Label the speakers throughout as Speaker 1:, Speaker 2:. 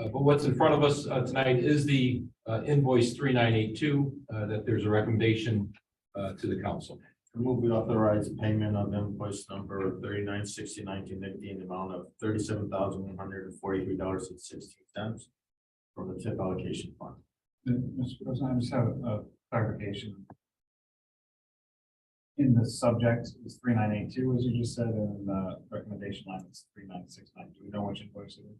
Speaker 1: Uh, But what's in front of us uh, tonight is the uh, invoice three nine eight two, uh, that there's a recommendation uh, to the council.
Speaker 2: I Move we authorize payment of invoice number thirty-nine sixty nineteen fifty in the amount of thirty-seven thousand one hundred and forty-three dollars and sixteen cents from the tip allocation fund.
Speaker 3: Mr. President, I just have a clarification. In the subject is three nine eight two, as you just said, and in the recommendation line is three nine six nine. Do we know which invoice it is?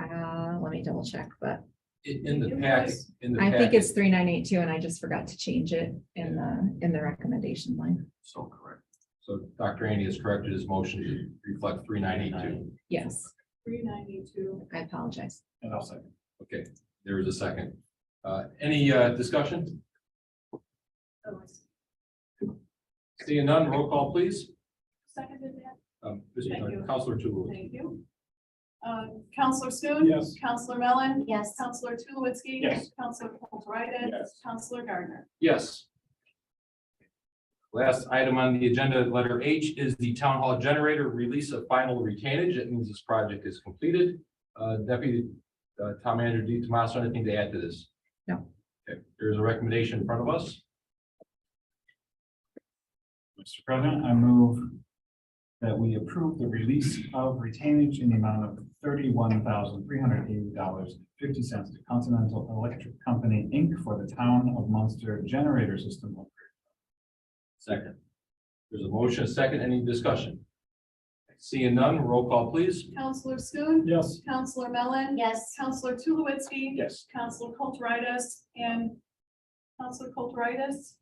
Speaker 4: Uh, let me double check, but
Speaker 1: In in the pack, in the
Speaker 4: I
Speaker 1: pack,
Speaker 4: think it's three nine eight two and I just forgot to change it in the, in the recommendation line.
Speaker 2: So correct.
Speaker 1: so Dr. Andy has corrected his motion to reflect three nine eight two.
Speaker 4: Yes,
Speaker 5: Three ninety-two.
Speaker 4: I apologize.
Speaker 3: And I'll second.
Speaker 1: Okay, there is a second. Uh, Any uh, discussion?
Speaker 5: Oh,
Speaker 1: Seeing none, roll call, please.
Speaker 5: Seconded that,
Speaker 1: Um, Mr.
Speaker 5: Thank you.
Speaker 1: Counselor Tulowitzki.
Speaker 5: thank you. Uh, Counselor Schoen.
Speaker 3: Yes.
Speaker 5: Counselor Mellon.
Speaker 4: Yes.
Speaker 5: Counselor Tulowitzki.
Speaker 3: Yes.
Speaker 5: Counselor Kulturitis.
Speaker 3: Yes.
Speaker 5: Counselor Gardner.
Speaker 1: Yes. Last item on the agenda, letter H, is the town hall generator release of final retainage. It means this project is completed. Uh, Deputy uh, Town Manager D. Tomaso, anything to add to this?
Speaker 4: No.
Speaker 1: Okay, there is a recommendation in front of us.
Speaker 3: Mr. President, I move that we approve the release of retainage in the amount of thirty-one thousand three hundred eighty dollars fifty cents to Continental Electric Company, Inc. for the Town of Munster Generator System.
Speaker 1: Second. There's a motion, a second, any discussion? Seeing none, roll call, please.
Speaker 5: Counselor Schoen.
Speaker 3: Yes.
Speaker 5: Counselor Mellon.
Speaker 4: Yes.
Speaker 5: Counselor Tulowitzki.
Speaker 3: Yes.
Speaker 5: Counselor Kulturitis and Counselor Kulturitis.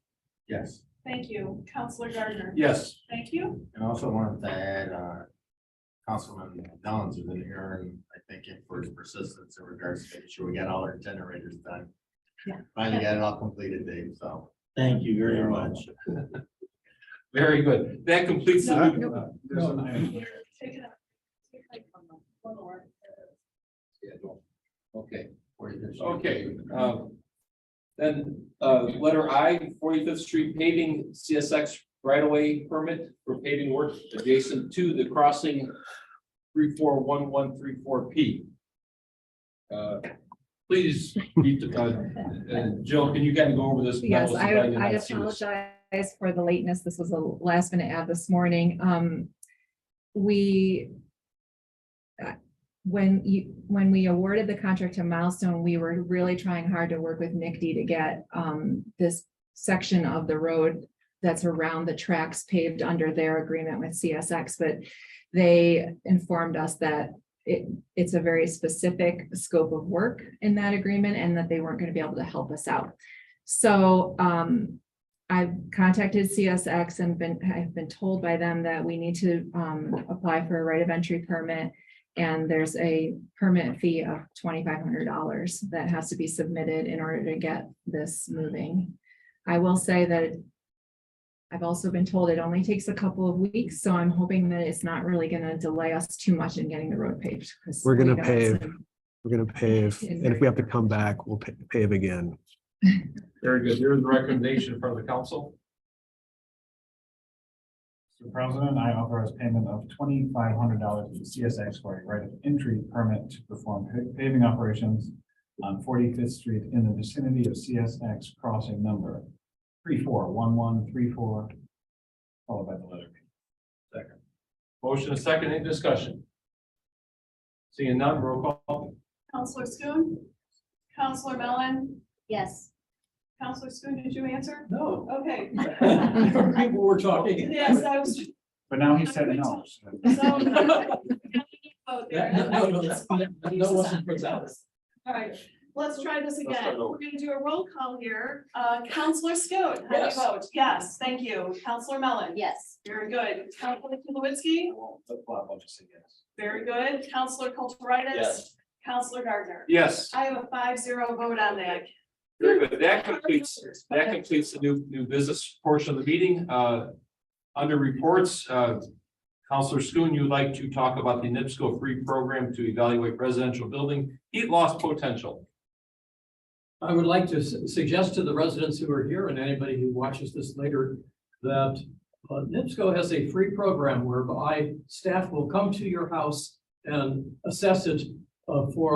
Speaker 2: Yes,
Speaker 5: Thank you. Counselor Gardner.
Speaker 1: Yes.
Speaker 5: Thank you.
Speaker 2: and I also wanted to add, uh, Councilman Downs is in here, and I thank him for his persistence in regards to making sure we got all our generators done.
Speaker 4: Yeah.
Speaker 2: Finally got it all completed, Dave, so.
Speaker 6: Thank you very much.
Speaker 1: Very good. That completes
Speaker 5: No,
Speaker 1: the,
Speaker 4: no.
Speaker 3: Uh, There's an item.
Speaker 5: Take it up. Take it up. One more.
Speaker 1: Yeah, no. okay,
Speaker 2: we're good.
Speaker 1: okay. um, Then, uh, letter I, Forty-Fifth Street paving CSX right-of-way permit for paving work adjacent to the crossing three-four-one-one-three-four P. Uh, Please, Pete, uh, uh, Jill, can you kind of go over this?
Speaker 4: Yes,
Speaker 1: That was
Speaker 4: I,
Speaker 1: the guy
Speaker 4: I
Speaker 1: that seen this.
Speaker 4: apologize for the lateness. This was a last minute ad this morning. Um, we uh, when you, when we awarded the contract to Milestone, we were really trying hard to work with NICD to get, um, this section of the road that's around the tracks paved under their agreement with CSX, but they informed us that it, it's a very specific scope of work in that agreement and that they weren't going to be able to help us out. So um, I've contacted CSX and been, I've been told by them that we need to um, apply for a right of entry permit. And there's a permit fee of twenty-five hundred dollars that has to be submitted in order to get this moving. I will say that I've also been told it only takes a couple of weeks, so I'm hoping that it's not really gonna delay us too much in getting the road paved. 'cause
Speaker 7: We're
Speaker 4: we
Speaker 7: gonna
Speaker 4: know it's a-
Speaker 7: pave. We're gonna pave,
Speaker 4: In
Speaker 7: and if we have to
Speaker 4: Vancouver.
Speaker 7: come back, we'll pa- pave again.
Speaker 1: Very good. Here's the recommendation in front of the council.
Speaker 3: Mr. President, I authorize payment of twenty-five hundred dollars to CSX for a right of entry permit to perform pa- paving operations on Forty-Fifth Street in the vicinity of CSX crossing number three-four-one-one-three-four, followed by the letter B.
Speaker 1: Motion and second, any discussion? Seeing none, roll call.
Speaker 5: Counselor Schoen. Counselor Mellon.
Speaker 4: Yes.
Speaker 5: Counselor Schoen, did you answer?
Speaker 6: No.
Speaker 5: Okay.
Speaker 6: People were talking.
Speaker 5: Yes, I was.
Speaker 3: But now he said no. so-
Speaker 5: so- Vote there.
Speaker 6: That- no, no, that's fine. No one puts out.
Speaker 5: All right, let's try this
Speaker 6: Let's start
Speaker 5: again.
Speaker 6: over.
Speaker 5: We're gonna do a roll call here. Uh, Counselor Schoen, how do you
Speaker 6: Yes.
Speaker 5: vote? Yes, thank you. Counselor Mellon.
Speaker 4: Yes.
Speaker 5: Very good. Counselor Tulowitzki,
Speaker 3: I won't flip-flop, I'll just say yes.
Speaker 5: very good. Counselor Kulturitis.
Speaker 6: Yes.
Speaker 5: Counselor Gardner.
Speaker 1: Yes.
Speaker 5: I have a five zero vote on that.
Speaker 1: Very good. That completes, that completes the new, new business portion of the meeting. Uh, Under reports, uh, Counselor Schoen, you'd like to talk about the NIPSCO free program to evaluate residential building heat loss potential.
Speaker 6: I would like to su- suggest to the residents who are here and anybody who watches this later that uh, NIPSCO has a free program whereby staff will come to your house and assess it uh, for